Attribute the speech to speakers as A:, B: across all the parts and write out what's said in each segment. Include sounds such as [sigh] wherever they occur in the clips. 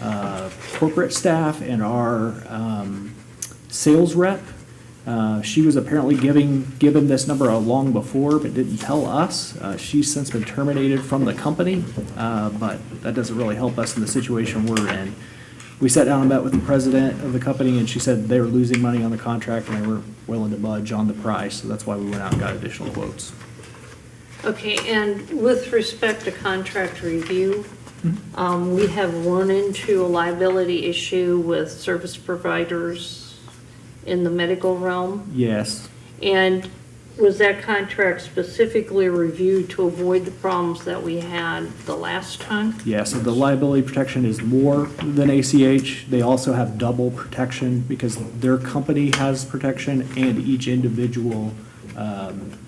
A: uh, corporate staff and our um, sales rep. Uh, She was apparently giving, given this number long before, but didn't tell us. Uh, She's since been terminated from the company, uh, but that doesn't really help us in the situation we're in. We sat down and met with the president of the company, and she said they were losing money on the contract, and they were willing to budge on the price, so that's why we went out and got additional quotes.
B: Okay, and with respect to contract review, um, we have run into a liability issue with service providers in the medical realm.
A: Yes.
B: And was that contract specifically reviewed to avoid the problems that we had the last time?
A: Yeah, so the liability protection is more than ACH. They also have double protection because their company has protection and each individual, um,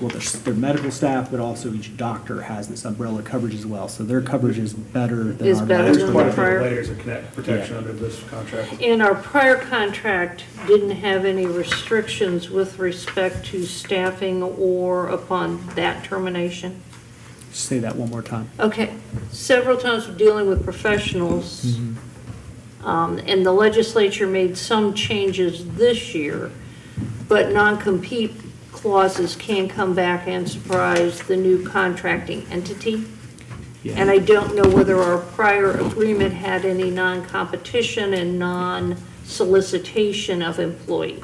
A: well, their, their medical staff, but also each doctor has this umbrella coverage as well. So their coverage is better than
B: Is
A: our
B: better
A: medical.
B: than
C: There's quite a few
B: prior-
C: layers of connect, protection under this contract.
B: And our prior contract didn't have any restrictions with respect to staffing or upon that termination?
A: Say that one more time.
B: Okay, several times we're dealing with professionals,
A: Mm-hmm.
B: um, and the legislature made some changes this year, but non-compete clauses can come back and surprise the new contracting entity. And
A: Yeah,
B: I don't know whether our prior agreement had any non-competition and non-solicitation of employees.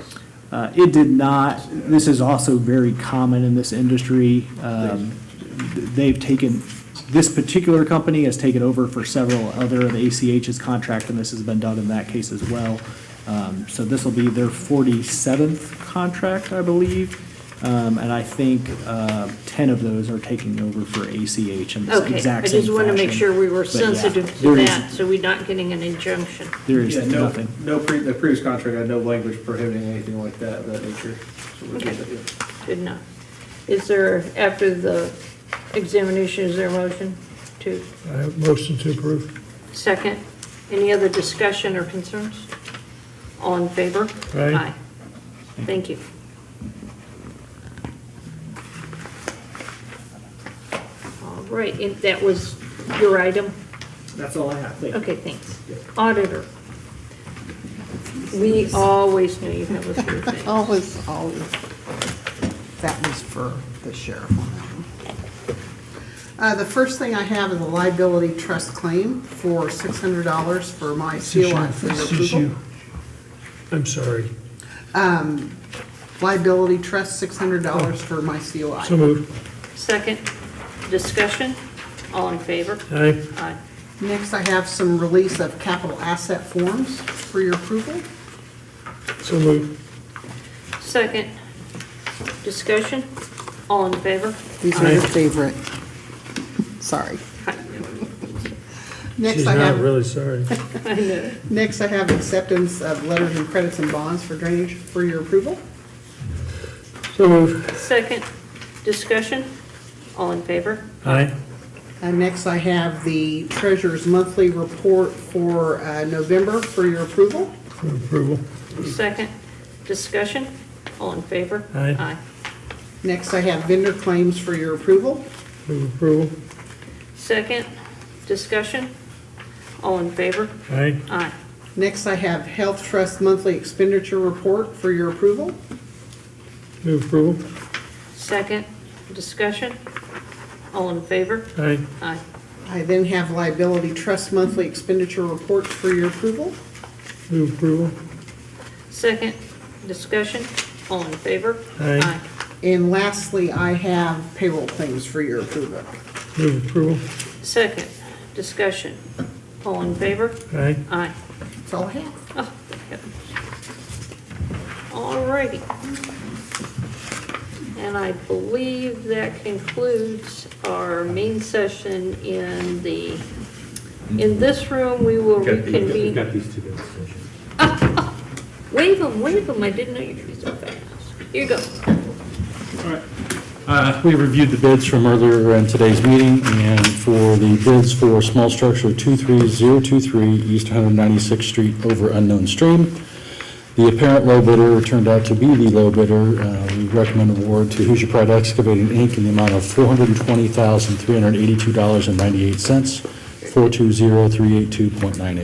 A: Uh, it did not, this is also very common in this industry. Um, th- They've taken, this particular company has taken over for several other of ACH's contract, and this has been done in that case as well. Um, So this will be their 47th contract, I believe, Um, and I think uh, 10 of those are taking over for ACH in this
B: Okay, I
A: exact same
B: just want to make
A: fashion.
B: sure we were
A: But yeah,
B: sensitive to
A: there is-
B: that, so we're not getting an injunction.
A: There is
C: Yeah, no,
A: nothing.
C: no, pre- the previous contract had no language prohibiting anything like that, of that nature. So we're good,
B: Okay.
C: yeah.
B: Good enough. Is there, after the examination, is there a motion to
D: I have motion to approve.
B: second? Any other discussion or concerns? All in favor?
D: Aye.
B: Thank you. All right, and that was your item?
A: That's all I have. Thank you.
B: Okay, thanks. Auditor. We always knew you have a few things.
E: [laughs] Always, always. That was for the sheriff. on that one. Uh, the first thing I have is a liability trust claim for six hundred dollars for my
D: This is
E: COI
D: you.
E: for your
D: This is you.
E: approval.
D: I'm sorry.
E: Liability trust, six hundred dollars for my COI.
D: Oh. So moved.
B: Second, discussion, all in favor?
D: Aye.
B: Aye.
E: Next, I have some release of capital asset forms for your approval.
D: So moved.
B: Second, discussion, all in favor?
E: These are your favorite. Sorry. Next,
D: She's
E: I
D: not
E: have,
D: really sorry.
B: I know.
E: next I have acceptance of letters and credits and bonds for drainage for your approval.
D: So moved.
B: Second, discussion, all in favor?
D: Aye.
E: Uh, Next, I have the treasurer's monthly report for uh, November for your approval.
D: For approval.
B: Second, discussion, all in favor?
D: Aye.
E: Next, I have vendor claims for your approval.
D: Move approval.
B: Second, discussion, all in favor?
D: Aye.
B: Aye.
E: Next, I have health trust monthly expenditure report for your approval.
D: Move approval.
B: Second, discussion, all in favor?
D: Aye.
B: Aye.
E: I then have liability trust monthly expenditure reports for your approval.
D: Move approval.
B: Second, discussion, all in favor?
D: Aye.
E: And lastly, I have payroll claims for your approval.
D: Move approval.
B: Second, discussion, all in favor?
D: Aye.
B: Aye.
E: That's all I have.
B: Oh, thank heavens. All righty. And I believe that concludes our main session in the, in this room, we will
F: We've
B: reconvene.
F: got these two guys.
B: Wave them, wave them, I didn't know you could be so fast. Here you go.
F: Uh, We reviewed the bids from earlier in today's meeting, and for the bids for small structure 23023 East 196th Street over unknown stream. The apparent low bidder turned out to be the low bidder. Uh, We recommend award to Hoosier Pride Excavating, Inc. in the amount of $420,382.98, 420382.98.